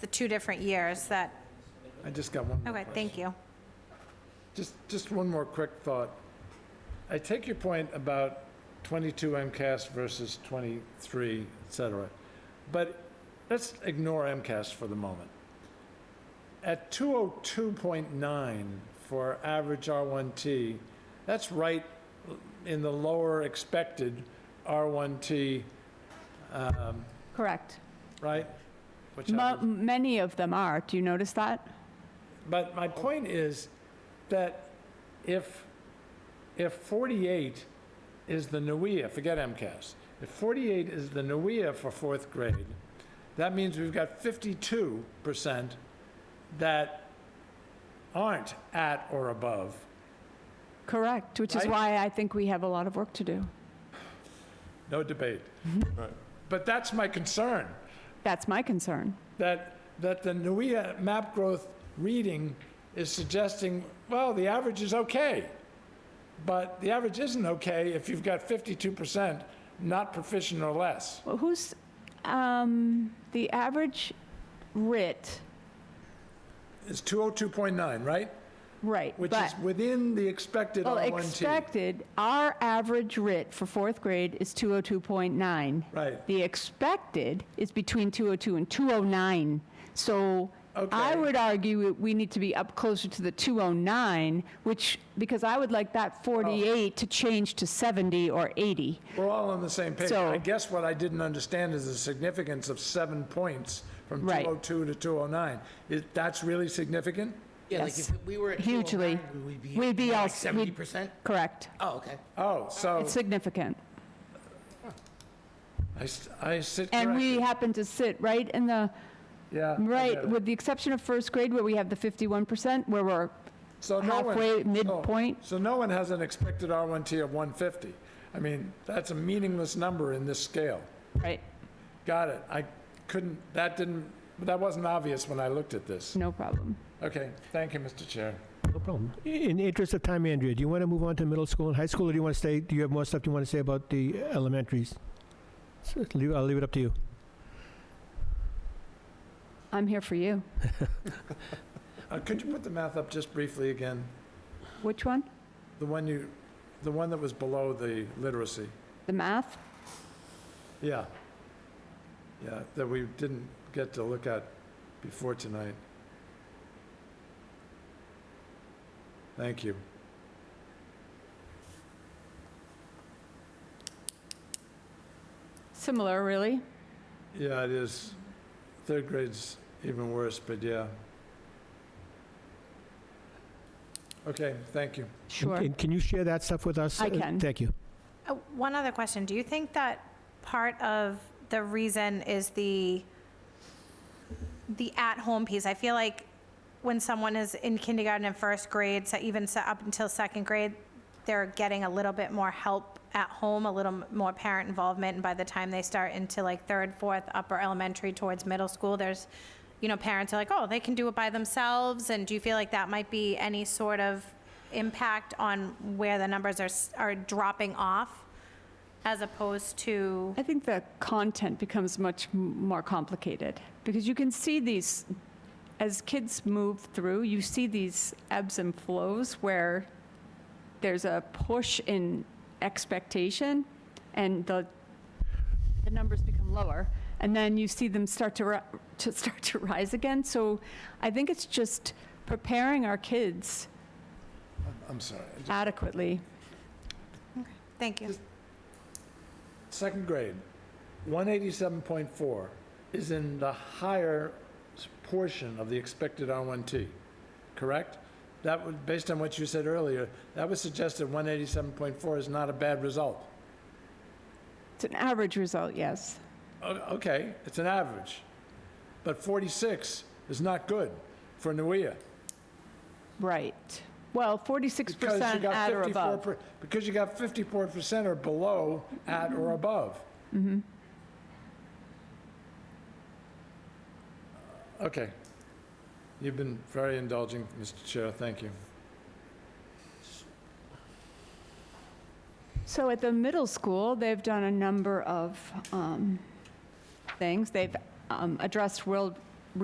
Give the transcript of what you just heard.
the two different years that, I just got one more okay, question. thank you. Just, just one more quick thought. I take your point about 22 MCAS versus 23, et cetera, but let's ignore MCAS for the moment. At 202.9 for average R1T, that's right in the lower expected R1T, um, Correct. right? Which Mo- average- Many of them are. Do you notice that? But my point is that if, if 48 is the NUIA, forget MCAS, if 48 is the NUIA for fourth grade, that means we've got 52% that aren't at or above. Correct, which is Right. why I think we have a lot of work to do. No debate. But that's my concern, That's my concern. that, that the NUIA map growth reading is suggesting, well, the average is okay. But the average isn't okay if you've got 52% not proficient or less. Well, who's, um, the average writ, It's 202.9, right? right, Which but- is within the expected Well, R1T. expected, our average writ for fourth grade is 202.9. Right. The expected is between 202 and 209. So I Okay. would argue that we need to be up closer to the 209, which, because I would like Oh. that 48 to change to 70 or 80. We're all on the same page. So- I guess what I didn't understand is the significance of seven points from Right. 202 to 209. Is- That's really significant? Yeah, like Yes. if we were at Hugely. 209, we'd be, We'd be all- like we'd- 70%? Correct. Oh, okay. Oh, so It's significant. I s- I sit And we corrected. happen to sit right in the, Yeah, I get right, it. with the exception of first grade where we have the 51%, where we're So no one- halfway, so- midpoint. So no one has an expected R1T of 150. I mean, that's a meaningless number in this scale. Right, Got it. I couldn't, that didn't, that wasn't obvious when I looked at this. no problem. Okay, thank you, Mr. Chair. No problem. In the interest of time, Andrea, do you want to move on to middle school and high school, or do you want to stay, do you have more stuff you want to say about the elementaries? So, leave- I'll leave it up to you. I'm here for you. Uh, Could you put the math up just briefly again? Which one? The one you, the one that was below the literacy? The math? Yeah. Yeah, that we didn't get to look at before tonight. Thank you. Similar, really. Yeah, it is. Third grade's even worse, but yeah. Okay, thank you. Sure. And can you share that stuff with us? I Uh, can. Thank you. Uh, One other question, do you think that part of the reason is the, the at-home piece? I feel like when someone is in kindergarten and first grade, so even so up until second grade, they're getting a little bit more help at home, a little m- more parent involvement, and by the time they start into like third, fourth, upper elementary towards middle school, there's, you know, parents are like, oh, they can do it by themselves, and do you feel like that might be any sort of impact on where the numbers are, s- are dropping off as opposed to, I think the content becomes much m- more complicated because you can see these, as kids move through, you see these ebbs and flows where there's a push in expectation and the, the numbers become lower. And then you see them start to, ri- to start to rise again. So I think it's just preparing our kids I'm sorry. I just- adequately. thank you. Second grade, 187.4 is in the higher s- portion of the expected R1T, correct? That would, based on what you said earlier, that would suggest that 187.4 is not a bad result. It's an average result, yes. O- Okay, it's an average, but 46 is not good for NUIA. Right. Well, because you 46% got at or 54 above. per- Because you got 54% or below at or above. Mm-hmm. Okay. You've been very indulging, Mr. Chair, thank you. So at the middle school, they've done a number of um, things. They've um, addressed world